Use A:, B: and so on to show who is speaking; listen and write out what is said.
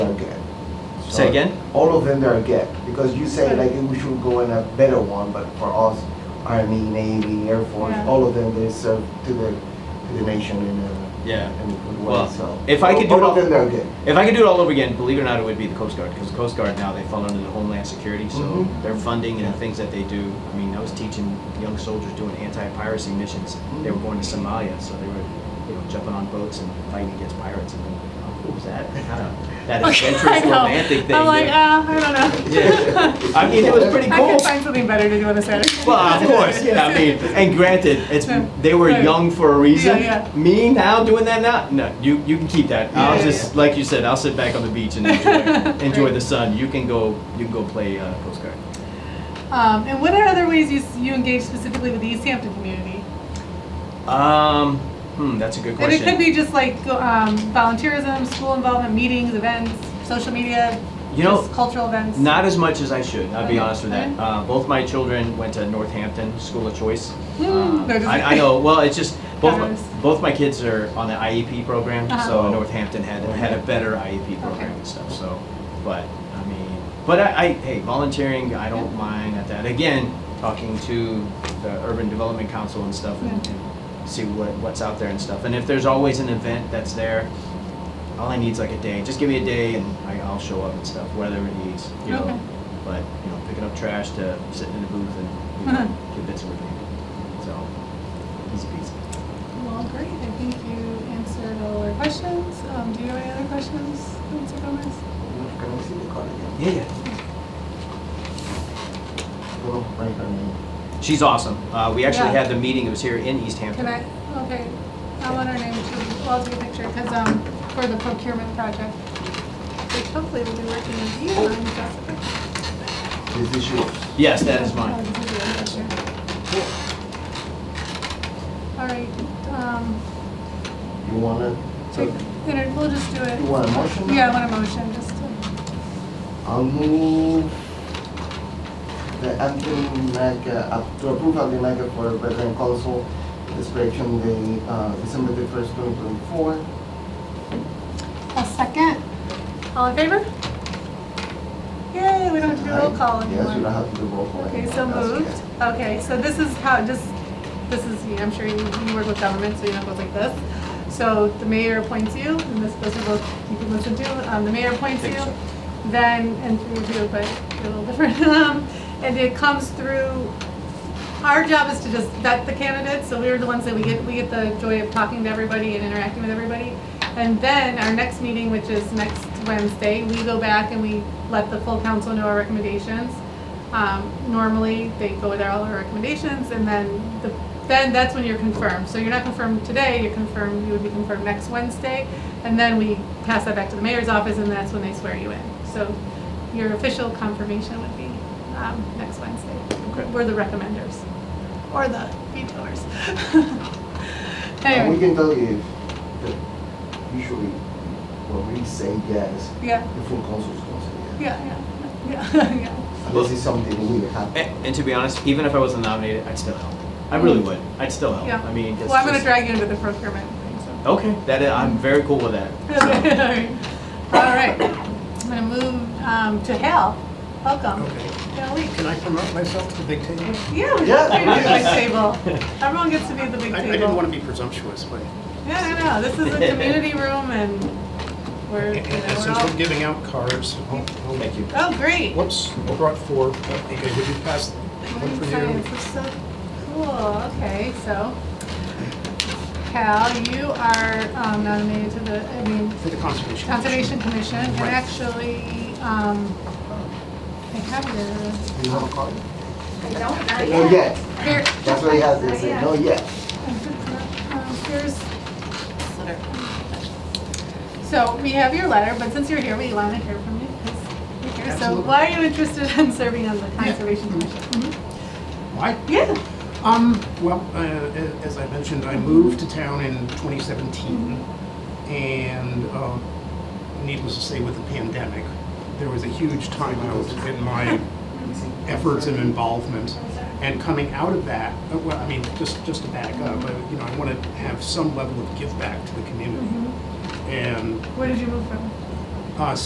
A: Say again?
B: All of them are get, because you say like we should go in a better one, but for us, Army, Navy, Air Force,
C: Yeah.
B: all of them, they serve to the, to the nation in a,
A: Yeah.
B: in a good way,
A: Well,
B: so.
A: if I could do it
B: All
A: all-
B: of them are good.
A: If I could do it all over again, believe it or not, it would be the Coast Guard, because Coast Guard now, they fall under the Homeland Security, so
C: Mm-hmm.
B: Mhm.
A: their funding and the
B: Yeah.
A: things that they do, I mean, I was teaching young soldiers doing anti-piracy missions. They were going to Somalia, so they were, you know, jumping on boats and fighting against pirates, and then, oh, what was that? Kind of That adventurous, romantic thing.
C: I'm like,
A: yeah.
C: uh, I don't know.
A: Yeah. I mean, it was pretty
C: I can
A: cool.
C: find something better to do on a Saturday.
A: Well, of course, yeah, I mean, and granted, it's, they were
C: Right.
A: young for a reason.
C: Yeah,
A: Me now doing that now, no, you, you can keep that. I'll
C: Yeah,
A: just, like you said, I'll sit back on the beach and enjoy, enjoy the sun. You can go, you can go play uh, Coast Guard.
C: Um, and what are other ways you, s- you engage specifically with the East Hampton community?
A: Um, hmm, that's a good
C: And it
A: question.
C: could be just like go- um, volunteerism, school involvement, meetings, events, social media,
A: You know,
C: just cultural events.
A: Not as much as I should, I'll be
C: Okay,
A: honest with that.
C: okay.
A: Uh, both my children went to Northampton School of Choice.
C: Hmm,
A: Uh,
C: they're just-
A: I, I know, well, it's just, both, my-
C: Patterns.
A: both my kids are on the IEP program, so
C: Uh-huh.
A: Northampton had, had a better IEP program
C: Okay.
A: and stuff, so, but, I mean, but I, I, hey, volunteering, I don't mind at that. Again, talking to the Urban Development Council and stuff and
C: Yeah.
A: and see what, what's out there and stuff. And if there's always an event that's there, all I need is like a day. Just give me a day and I, I'll show up and stuff, whatever it needs, you
C: Okay.
A: know. But, you know, picking up trash to sitting in the booth and, you know,
C: Mhm.
A: get bits of it. So, easy peasy.
C: Well, great. I think you answered all our questions. Um, do you have any other questions, Mr. Gomez?
B: Can I see the card again?
A: Yeah, yeah.
B: Little right hand.
A: She's awesome. Uh, we actually
C: Yeah.
A: had the meeting, it was here in East Hampton.
C: Can I, okay, I want her name to, I'll take a picture, because, um, for the procurement project, which hopefully will be working with you on Jessica.
B: This is yours.
A: Yes, that is mine.
C: Oh, this is your picture. All right, um,
B: You wanna, so,
C: take, then we'll just do
B: you
C: it.
B: want a motion?
C: Yeah, I want a motion, just to,
B: I'll move the acting NICA, up- to approve acting NICA for veteran council, this correction, the, uh, December the first, twenty twenty-four.
C: a second. All in favor? Yay, we don't have to do roll call anymore.
B: Yes, you don't have to do roll call.
C: Okay,
B: anymore.
C: so
B: That's okay.
C: moved. Okay, so this is how, just, this is, you- I'm sure you, you work with government, so you know it goes like this. So the mayor appoints you, and this, those are both, you can listen to, um, the mayor appoints
A: Thank
C: you,
A: you, sir.
C: then, and through you, but you're a little different. Um, And it comes through, our job is to just vet the candidates, so we're the ones that we get, we get the joy of talking to everybody and interacting with everybody. And then our next meeting, which is next Wednesday, we go back and we let the full council know our recommendations. Um, normally, they go with all our recommendations, and then the, then that's when you're confirmed. So you're not confirmed today, you're confirmed, you would be confirmed next Wednesday, and then we pass that back to the mayor's office, and that's when they swear you in. So your official confirmation would be, um, next Wednesday.
A: Okay.
C: We're the recommenders, or the vetoers.
B: And we
C: Anyway,
B: can tell you if, that usually, when we say yes,
C: yeah,
B: the full council's gonna say yes.
C: yeah, yeah, yeah, yeah.
B: Unless it's something weird happens.
A: And, and to be honest, even if I wasn't nominated, I'd still help. I really would. I'd still help.
C: Mm. Yeah.
A: I mean, it's
C: Well, I'm gonna
A: just-
C: drag you into the procurement thing, so.
A: Okay, that, I'm very cool with that.
C: All right, I'm gonna move um, to Hal. Welcome.
D: Okay.
C: Hal Leach.
D: Can I promote myself to the big table?
C: Yeah, we're
B: Yeah.
C: just waiting at the big table. Everyone gets to be at the big
D: I, I
C: table.
D: didn't want to be presumptuous, but
C: Yeah, no, no, this is a community room and we're,
D: and-
C: you know,
D: and
C: we're
D: since we're
C: all,
D: giving out cards, I'll, I'll
A: Thank you.
C: oh, great.
D: Whoops, I brought four. Okay, would you pass one
C: Marine
D: for
C: science
D: you?
C: is so cool. Okay, so Hal, you are um, nominated to the, I mean,
D: For the conservation.
C: Conservation Commission, and
D: Right.
C: actually, um, I have your,
B: Do you have a card?
E: I don't, not
B: No,
E: yet.
B: yes.
C: here,
B: That's what he has, they say, no, yes.
C: um, here's, so we have your letter, but since you're here, we want to hear from you, 'cause you're here. So
D: Absolutely.
C: why are you interested in serving on the Conservation Commission? Mhm.
D: Why?
C: Yeah,
D: Um, well, uh, a- as I mentioned, I moved to town in 2017, and um, needless to say, with the pandemic, there was a huge timeout in my
C: Mm-hmm.
D: efforts and involvement. And coming out of that, uh, well, I mean, just just to back up, I, you know, I want to have some level of give back to the community, and
C: where did you move from?
D: uh,